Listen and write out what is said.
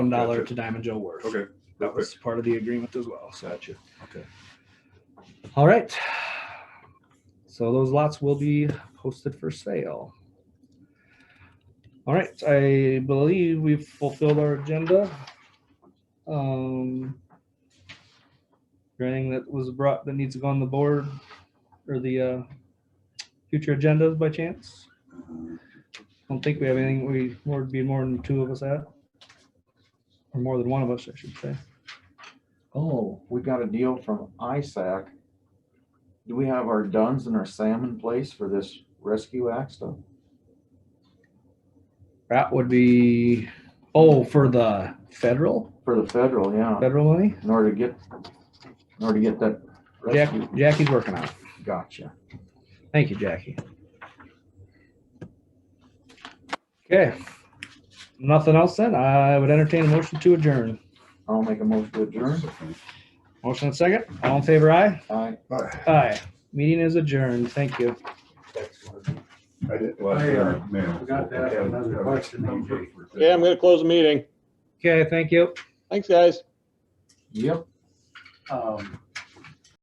one dollar Gotcha. to Diamond Joe Worth. Okay. That was part of the agreement as well, so. Gotcha. Okay. All right. So those lots will be posted for sale. All right, I believe we've fulfilled our agenda. Um, there anything that was brought that needs to go on the board or the uh, future agendas by chance? Don't think we have anything we would be more than two of us at, or more than one of us, I should say. Oh, we got a deal from ISAC. Do we have our duns and our SAM in place for this Rescue Act stuff? That would be, oh, for the federal, For the federal, yeah, federal money? in order to get, in order to get that Jackie, rescue, Jackie's working on it. gotcha. Thank you, Jackie. Okay. Nothing else then? I would entertain a motion to adjourn. I'll make a motion to adjourn. Motion and second. All in favor, aye? Aye. Aye. Meeting is adjourned. Thank you. I did. Hey, uh, forgot to ask another question, okay. Okay, I'm gonna close the meeting. Okay, thank you. Thanks, guys. Yep, Um,